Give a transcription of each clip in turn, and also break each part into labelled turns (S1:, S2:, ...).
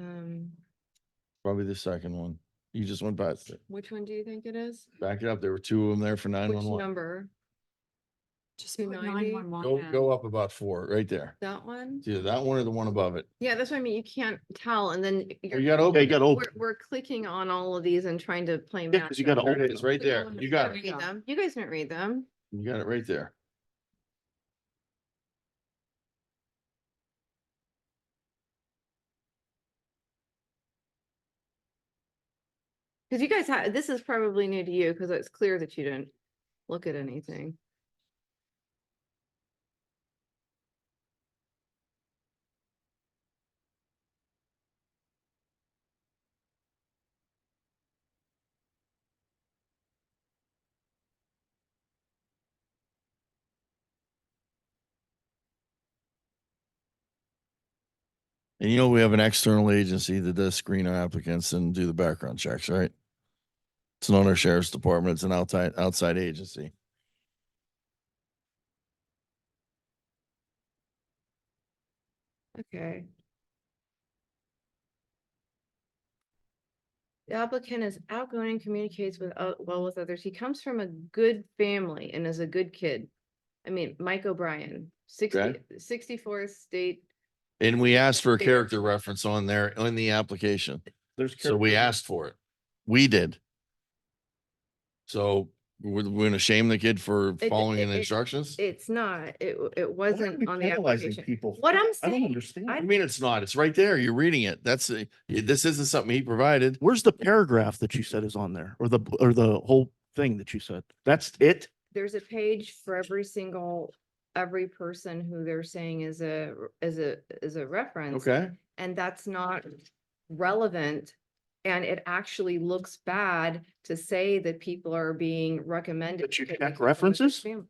S1: Um,
S2: Probably the second one. You just went past it.
S1: which one do you think it is?
S2: Back it up. There were two of them there for nine
S1: Which
S2: one one.
S1: number?
S3: Just
S1: put
S3: put
S1: 911
S3: 911.
S2: Go, go up about four, right there.
S1: That one?
S2: It's Either that one or the one above it.
S1: Yeah, that's what I mean. You can't tell and then you're,
S2: Or Oh, You gotta open. it.
S4: got
S1: we're, we're clicking on all of these and trying to play.
S4: Yeah, 'cause you
S1: matchup.
S4: gotta
S2: There it
S4: open
S2: is,
S4: them.
S2: right there. You got it.
S3: There
S1: Read
S3: go.
S1: them. You guys didn't read them.
S2: You got it right there.
S1: Cause you guys had, this is probably new to you because it's clear that you didn't look at anything.
S2: And you know, we have an external agency that does screen our applicants and do the background checks, right? It's not our sheriff's department. It's an outside, outside agency.
S1: Okay. The applicant is outgoing, communicates with, o- well with others. He comes from a good family and is a good kid. I mean, Mike O'Brien, sixty,
S2: Okay.
S1: sixty-fourth state.
S2: And we asked for a
S1: Fair.
S2: character reference on there, on the application.
S4: There's.
S2: So we asked for it. We did. So we're, we're gonna shame the kid for
S1: it-
S2: following
S1: it-
S2: the instructions?
S1: It's not, it, w- it
S4: Why are we
S1: wasn't on the
S4: penalizing
S1: application.
S4: people for
S1: What
S4: it?
S1: I'm
S4: I don't
S1: saying-
S4: understand.
S1: I-
S2: I mean, it's not. It's right there. You're reading it. That's, a- this isn't something he provided.
S4: Where's the paragraph that you said is on there or the, or the whole thing that you said? That's it?
S1: There's a page for every single, every person who they're saying is a, r- is a, is a reference.
S2: Okay.
S1: and that's
S2: Mm.
S1: not relevant. And it actually looks bad to say that people are being recommended.
S4: But you
S1: because
S4: check
S1: they come from a good
S4: references?
S1: family.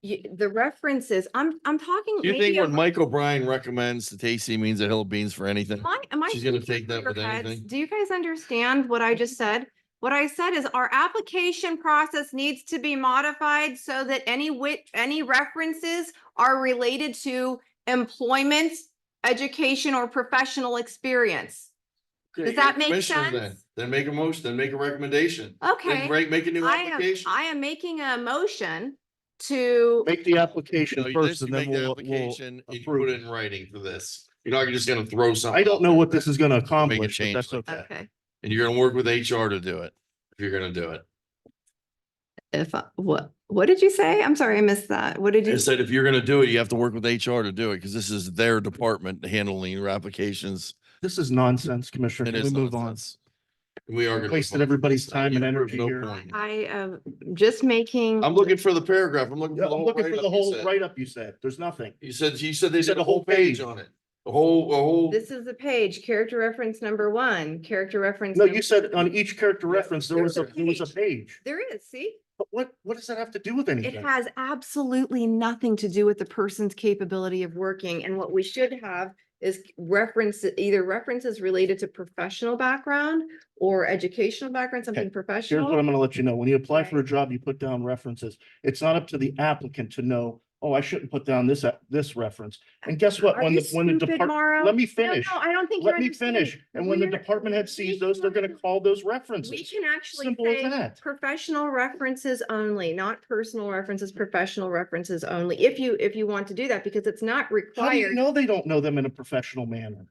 S1: You, the references, I'm, I'm talking.
S2: Do you think
S1: maybe
S2: when
S1: I'm-
S2: Mike O'Brien recommends that Tasty means a hill of beans for anything?
S1: Am I, am I?
S2: she's gonna
S1: speaking
S2: take that
S1: clear
S2: with
S1: cuts?
S2: anything?
S1: Do you guys understand what I just said? What I said is our application process needs to be modified so that any wit, any references are related to employment, education, or professional experience.
S2: Okay,
S1: Does that
S2: you're a
S1: make
S2: commissioner then.
S1: sense?
S2: Then make a motion, then make a recommendation.
S1: Okay.
S2: Then break, make a new
S1: I am,
S2: application.
S1: I am making a motion to,
S4: Make the
S2: No,
S4: application
S2: you just-
S4: first
S2: you
S4: and then
S2: make the
S4: we'll, we'll.
S2: application and you
S4: approve
S2: Put it
S4: it.
S2: in writing for this. You're not just gonna throw something.
S4: I don't
S2: out
S4: know
S2: there.
S4: what this is going to accomplish, but
S2: change
S4: that's
S2: like
S4: okay.
S1: okay,
S2: And you're gonna work with HR to do it, if you're gonna do it.
S1: if, I- what, what did you say? I'm sorry, I missed that. What did
S2: They
S1: you?
S2: said if you're gonna do it, you have to work with HR to do it, because this is their department handling your applications.
S4: This is nonsense, Commissioner.
S2: It
S4: Can we
S2: is
S4: move on?
S2: nonsense. We are. gonna
S4: Wasted
S2: move on.
S4: everybody's time and
S2: Yeah, there's
S4: energy
S2: no
S4: here.
S2: point.
S1: I am just making.
S2: I'm looking for the paragraph. I'm looking
S4: Yeah,
S2: for the
S4: I'm
S2: whole.
S4: looking for
S2: write-up
S4: the
S2: you
S4: whole
S2: said.
S4: write-up you said. There's nothing.
S2: You said, you said they
S4: You said
S2: did
S4: the
S2: a whole
S4: whole
S2: page
S4: page.
S2: on it. The whole, a whole.
S1: This is the page, character reference number one, character reference.
S4: No,
S1: number-
S4: you said on each character
S2: Yeah,
S4: reference, there
S1: there's
S4: was a,
S1: a
S4: there was a
S1: page.
S4: page.
S1: There is, see?
S4: But what, what does that have to do with
S1: It
S4: anything?
S1: has absolutely nothing to do with the person's capability of working. And what we should have is reference, either references related to professional background or educational background, something
S4: Here's what
S1: professional.
S4: I'm gonna let you know. When you apply for a
S1: Right.
S4: job, you put down references. It's not up to the applicant to know, oh, I shouldn't put down this, a- this reference. And guess what?
S1: Are
S4: When
S1: you
S4: the, when the
S1: stupid,
S4: department,
S1: Mauro?
S4: let me
S1: No,
S4: finish.
S1: No, I don't think. you're
S4: Let me
S1: understanding.
S4: finish. And when the
S1: We're-
S4: department head
S1: we
S4: sees those, they're gonna
S1: can-
S4: call those
S1: We
S4: references.
S1: can actually
S4: Simple as
S1: say
S4: that.
S1: professional references only, not personal references, professional references only, if you, if you want to do that, because it's not
S4: How do you
S1: required.
S4: know they don't know them in a professional manner?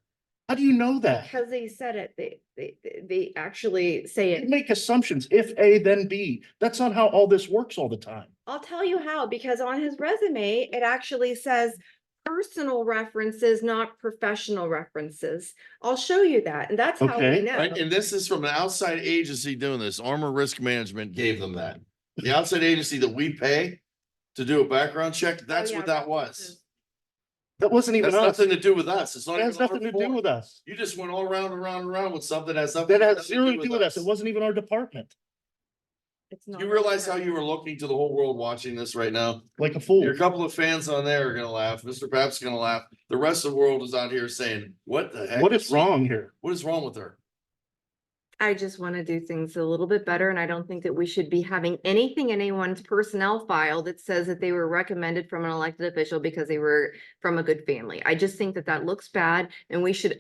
S4: How do you know that?
S1: Because they said it, they, they, they- they actually say
S4: You
S1: it.
S4: Make assumptions. If A, then B. That's not how all this works all the time.
S1: I'll tell you how, because on his resume, it actually says personal references, not professional references. I'll show you that, and that's how we
S4: Okay.
S1: know.
S2: Right, and this is from an outside agency doing this. Armor Risk Management gave them that. The outside agency that we pay to do a background check, that's
S1: Oh, yeah,
S2: what that was.
S1: references.
S4: That wasn't even
S2: That's
S4: us.
S2: nothing
S4: It
S2: to do with us. It's not.
S4: has
S2: even our
S4: nothing to do
S2: fault.
S4: with us.
S2: You just went all around and round and round with something that has. nothing-
S4: That has
S2: nothing
S4: zero to do with us. It wasn't even our department,
S1: It's not
S2: You realize how
S1: required.
S2: you were looking to the whole world watching this right now?
S4: like a fool.
S2: Your couple of fans on there are gonna laugh. Mr. Pap's gonna laugh. The rest of the world is out here saying, what the heck?
S4: What is wrong here?
S2: What is wrong with her?
S1: I just want to do things a little bit better, and I don't think that we should be having anything in anyone's personnel file that says that they were recommended from an elected official because they were from a good family. I just think that that looks bad, and we should